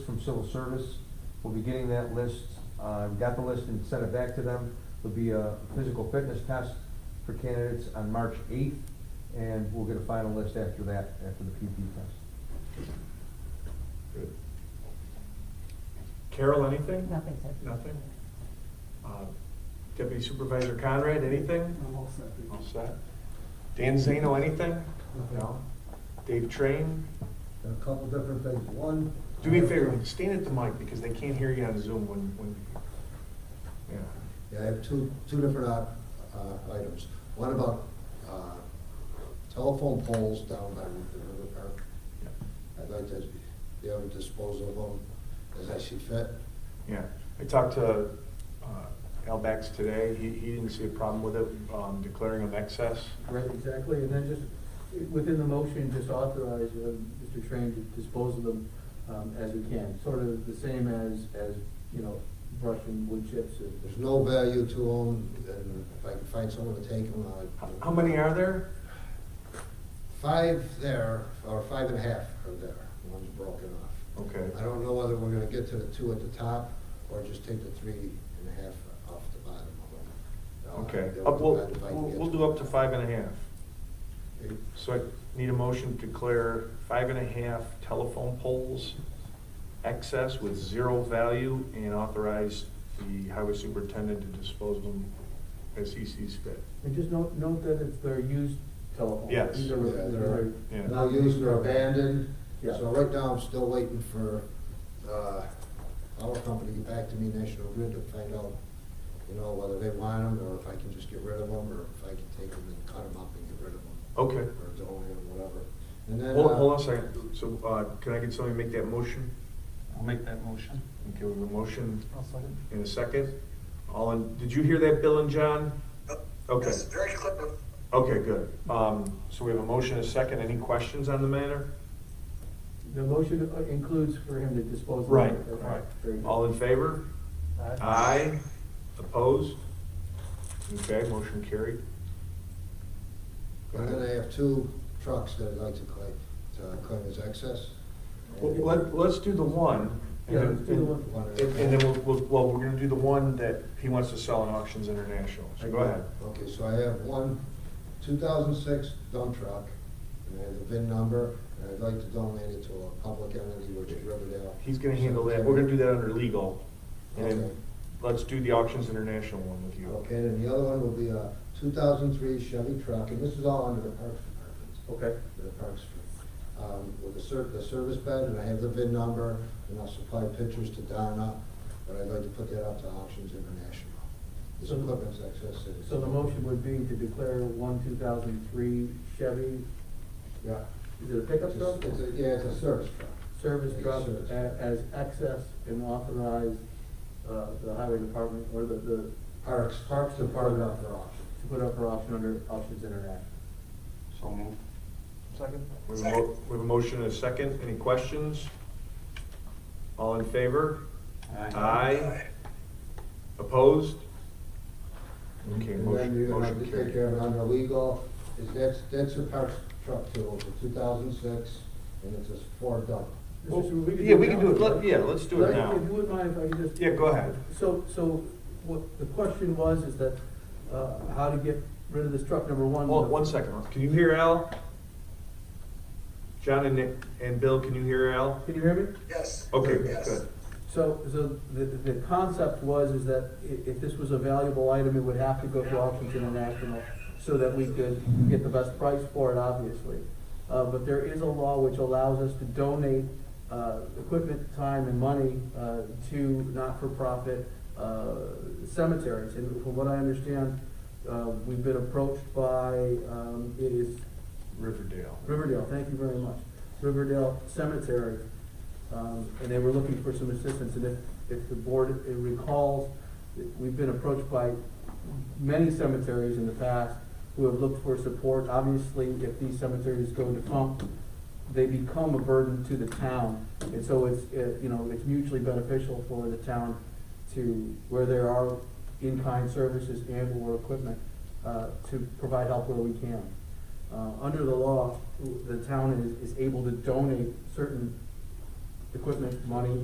from civil service. We'll be getting that list, uh, got the list and sent it back to them. There'll be a physical fitness test for candidates on March eighth, and we'll get a final list after that, after the PP test. Good. Carol, anything? Nothing, sir. Nothing? Uh, Deputy Supervisor Conrad, anything? I'm all set, thank you. All set. Dan Zano, anything? No. Dave Train? a couple different things. One. Do me a favor, stand at the mic because they can't hear you on Zoom when, when, yeah. Yeah, I have two, two different uh, uh, items. One about uh, telephone poles down by the river park. I'd like to be able to dispose of them as I see fit. Yeah, I talked to uh, Al Bax today. He, he didn't see a problem with it, um, declaring of excess. Right, exactly, and then just, within the motion, just authorize uh, Mr. Train to dispose of them um, as we can, sort of the same as, as, you know, brush and wood chips. and- There's no value to them, and if I can find someone to take them, How- I'd. How many are there? Five there, or five and a half are there, one's broken off. Okay. I don't know whether we're gonna get to the two at the top, or just take the three and a half off the bottom of them. Okay, They'll up, we'll, divide we'll it. we'll do up to five and a half. Okay. So I need a motion to declare five and a half telephone poles excess with zero value and authorize the highway superintendent to dispose of them as he sees fit. And just note, note that it's their used telephone. Yes. These are- Yeah, these are- they're- Yeah. No used or abandoned, Yeah. so right now I'm still waiting for, uh, our company to get back to me, National Grid, to find out, you know, whether they want them, or if I can just get rid of them, or if I can take them and cut them up and get rid of them. Okay. Or donate them, whatever. And then. Hold, uh, hold on a second. So, uh, can I get somebody to make that motion? I'll make that motion. Okay, we have a motion I'll second. in a second. All in, did you hear that, Bill and John? Okay, Yes, very clear. okay, good. Um, so we have a motion and a second. Any questions on the matter? The motion uh, includes for him to dispose of. them. Right, Okay, right. very good. All Uh, in favor? Aye. Opposed? Okay, motion carried. And then I have two trucks that I'd like to claim, to claim as excess. Well, Let, let's do the one. and Yeah, then- let's do the one. One at a And and then we'll, we'll- well, we're gonna do the one that he wants to sell in Auctions International, so go ahead. Okay, so I have one 2006 dump truck, and I have the VIN number, and I'd like to donate it to a public entity, which is Riverdale. He's gonna handle that, we're gonna do that under legal. And Okay. then, let's do the Auctions International one with you. Okay, and the other one will be a 2003 Chevy truck, and this is all under the Parks Department. Okay. The Parks, um, with the ser, the service bed, and I have the VIN number, and I'll supply pictures to Donna, but I'd like to put that out to Auctions International. This So- equipment's excess. it's- So the motion would be to declare one two thousand three Chevy, Yeah. is it a pickup It's- truck? It's a, yeah, it's a service truck. service Like truck service. a- as excess and authorize uh, the highway department or the, the, to Parks, Parks Department up for auction. put up for auction under Options International. So move. We have a mo- we have a motion and a second, any questions? All in favor? Aye. Opposed? Okay, And then motion, you're gonna have to motion take carried. care of it under legal, is that's, that's a Parks truck too, it's a two thousand six, and it's a Ford dump. Well, Mr. Chairman, could yeah, we can now. do it. Let- yeah, let's do it Let- now. If you wouldn't mind if I could just. Yeah, go ahead. So, so what the question was is that, uh, how to get rid of this truck, number one. Hold, one second, can you hear Al? John and Nick, and Bill, can you hear Al? Can you hear me? Yes. Okay, Yes. good. So, so the, the concept was is that i- if this was a valuable item, it would have to go to Auctions International so that we could get the best price for it, obviously. Uh, but there is a law which allows us to donate, uh, equipment, time, and money, uh, to not-for-profit, uh, cemeteries. And from what I understand, uh, we've been approached by, um, it is Riverdale. Riverdale, thank you very much. Riverdale Cemetery, um, and they were looking for some assistance, and if, if the board recalls, we've been approached by many cemeteries in the past who have looked for support. Obviously, if these cemeteries go defunct, they become a burden to the town, and so it's, uh, you know, it's mutually beneficial for the town to, where there are in-kind services and/or equipment, uh, to provide help where we can. Uh, under the law, the town is, is able to donate certain equipment, money,